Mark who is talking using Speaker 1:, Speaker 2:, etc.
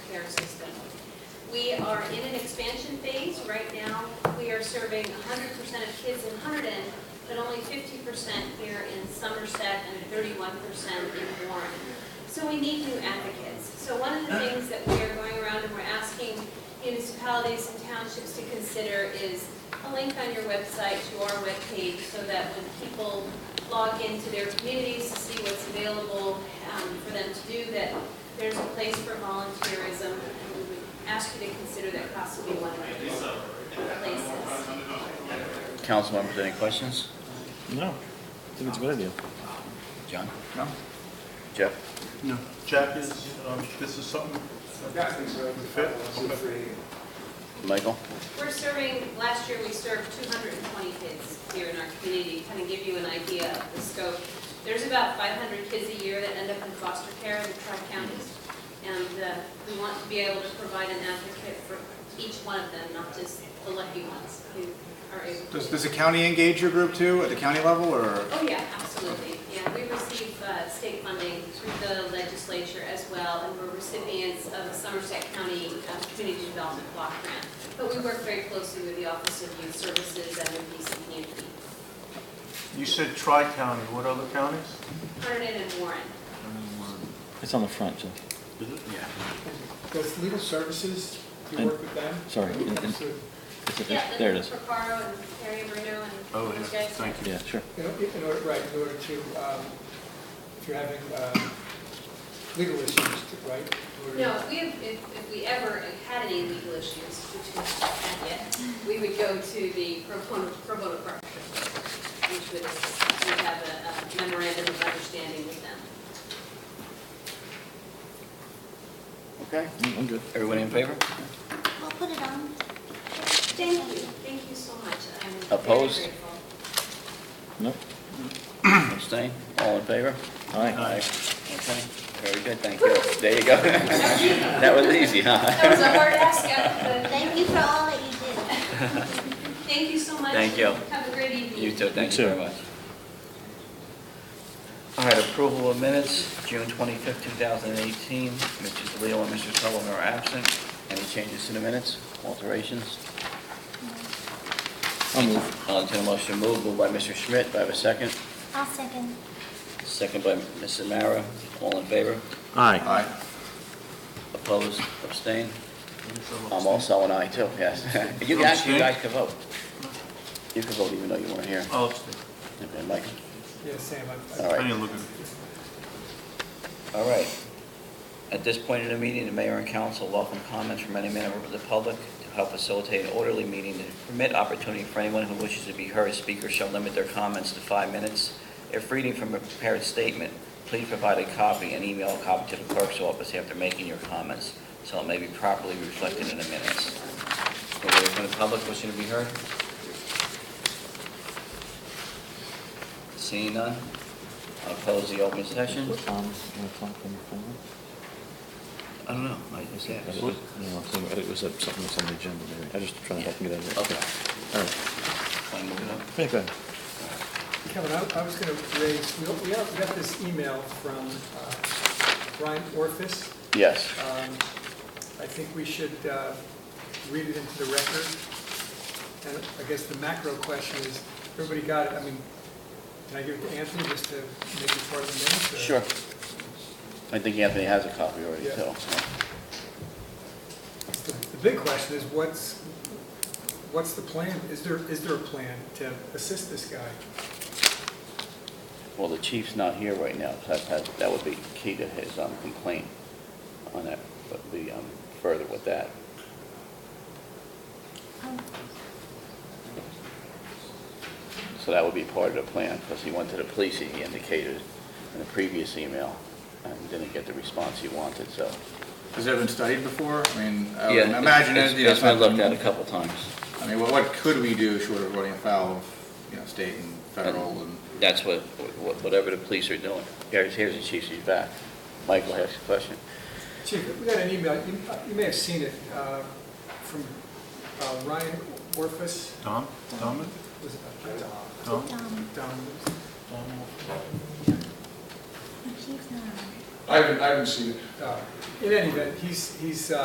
Speaker 1: We are in an expansion phase. Right now, we are serving 100% of kids in Hunterdon, but only 50% here in Somerset and 31% in Warren. So we need new advocates. So one of the things that we are going around and we're asking municipalities and townships to consider is a link on your website to our webpage so that when people log into their communities to see what's available um, for them to do, that there's a place for volunteerism. And we would ask you to consider that possibly one of these places.
Speaker 2: Council members, any questions?
Speaker 3: No, I think it's a good idea.
Speaker 2: John?
Speaker 4: No.
Speaker 2: Jeff?
Speaker 4: No. Jack is, um, this is something,
Speaker 5: Yeah, I think so.
Speaker 4: Fit?
Speaker 5: It's free.
Speaker 2: Michael?
Speaker 1: We're serving, last year we served 220 kids here in our community, kind of give you an idea of the scope. There's about 500 kids a year that end up in foster care in the tri-counties. And uh, we want to be able to provide an advocate for each one of them, not just the lucky ones who are able to.
Speaker 5: Does, does the county engage your group too, at the county level, or?
Speaker 1: Oh, yeah, absolutely. Yeah, we receive uh, state funding through the legislature as well, and we're recipients of the Somerset County uh, Community Development Block Grant. But we work very closely with the Office of Youth Services and the PCPNP,
Speaker 4: you said tri-county, what other counties?
Speaker 1: Vernon and Warren.
Speaker 3: It's on the front, Jeff.
Speaker 2: Yeah.
Speaker 6: Does legal services, do you
Speaker 3: And-
Speaker 6: work with them?
Speaker 3: sorry,
Speaker 6: Who
Speaker 3: and-
Speaker 6: comes
Speaker 3: and-
Speaker 6: to-
Speaker 3: It's a-
Speaker 1: Yeah,
Speaker 3: There it is.
Speaker 1: Linda Procaro and Terry Bruno and.
Speaker 4: Oh,
Speaker 1: those
Speaker 4: yeah,
Speaker 1: guys.
Speaker 4: thank you.
Speaker 3: Yeah, sure.
Speaker 6: In o- in order, right, in order to, um, if you're having um, legal issues, to- right? in order-
Speaker 1: No, if we, if, if we ever had any legal issues, which we haven't yet, we would go to the pro bono, pro bono partnership, which would, we have a- a memorandum of understanding with them.
Speaker 2: Okay.
Speaker 3: Mm, I'm good.
Speaker 2: Everybody in favor?
Speaker 7: I'll put it on.
Speaker 1: Thank you, thank you so much. I'm very
Speaker 2: Opposed?
Speaker 1: grateful.
Speaker 3: Nope.
Speaker 2: Abstain? All in favor?
Speaker 3: All right.
Speaker 2: Okay. Very good, thank you. There you go. That was easy, huh?
Speaker 1: That was a hard ask, uh, but
Speaker 7: Thank you for all that you did.
Speaker 1: thank you so much.
Speaker 2: Thank you.
Speaker 1: Have a great evening.
Speaker 2: You too, thank
Speaker 3: You
Speaker 2: you
Speaker 3: too.
Speaker 2: very much. All right, approval of minutes, June 25th, 2018. Mrs. Leo and Mr. Sullivan are absent. Any changes to the minutes, alterations?
Speaker 3: I'll move.
Speaker 2: I'll entertain a motion to move, moved by Mr. Schmidt, do I have a second?
Speaker 7: I'll second.
Speaker 2: Second by Mrs. Mara, all in favor?
Speaker 3: Aye.
Speaker 5: Uh,
Speaker 2: Opposed, abstained? I'm also an aye too, yes. You can actually, you guys can vote. You can vote even though you weren't here.
Speaker 4: I'll abstain.
Speaker 2: Okay, Michael,
Speaker 6: Yeah, Sam, I- I-
Speaker 2: all
Speaker 4: I
Speaker 2: right.
Speaker 4: didn't look at it.
Speaker 2: All right. At this point in the meeting, the mayor and council welcome comments from any member of the public to help facilitate an orderly meeting and permit opportunity for anyone who wishes to be heard. Speakers shall limit their comments to five minutes. If reading from a prepared statement, please provide a copy and email a copy to the clerk's office after making your comments, so it may be properly reflected in the minutes. Anybody from the public wishing to be heard? Seeing none, I'll close the open session.
Speaker 3: What time is it? One o'clock on the phone?
Speaker 2: I don't know, I just
Speaker 3: Yeah,
Speaker 2: asked.
Speaker 3: it was- no, I think It was uh, something that's on the agenda, maybe. I just trying to help you get out of it.
Speaker 2: Okay,
Speaker 3: All right.
Speaker 2: Wanna move it up?
Speaker 3: Yeah, go ahead.
Speaker 6: Kevin, I I was going to raise, we we got we got this email from uh, Brian Orfis.
Speaker 2: Yes.
Speaker 6: Um, I think we should uh, read it into the record. And I guess the macro question is, everybody got it, I mean, can I give it to Anthony just to make it part of the minutes? or-
Speaker 2: Sure. I think Anthony has a copy already,
Speaker 6: Yeah.
Speaker 2: too.
Speaker 6: The the big question is, what's, what's the plan? Is there, is there a plan to assist this guy?
Speaker 2: Well, the chief's not here right now, so that- that, that would be key to his um, complaint on that, but be um, further with that.
Speaker 7: Um,
Speaker 2: So that would be part of the plan, because he went to the police, he indicated in the previous email, and didn't get the response he wanted, so.
Speaker 5: Has it been studied before? I mean, I would imagine it, you know.
Speaker 2: It's been
Speaker 5: something-
Speaker 2: looked at a couple times.
Speaker 5: I mean, what, what could we do short of running afoul of, you know, state and federal and?
Speaker 2: That's what, what- whatever the police are doing. Here's, here's the chief, he's back. Michael has a question.
Speaker 6: Chief, we got an email, you you may have seen it, uh, from uh, Ryan Orfis.
Speaker 4: Tom, Tom,
Speaker 6: Was it Dom?
Speaker 4: Tom?
Speaker 7: um,
Speaker 6: Dom.
Speaker 7: the chief's not on.
Speaker 8: I haven't, I haven't seen it.
Speaker 6: Uh, In any event, he's, he's, uh,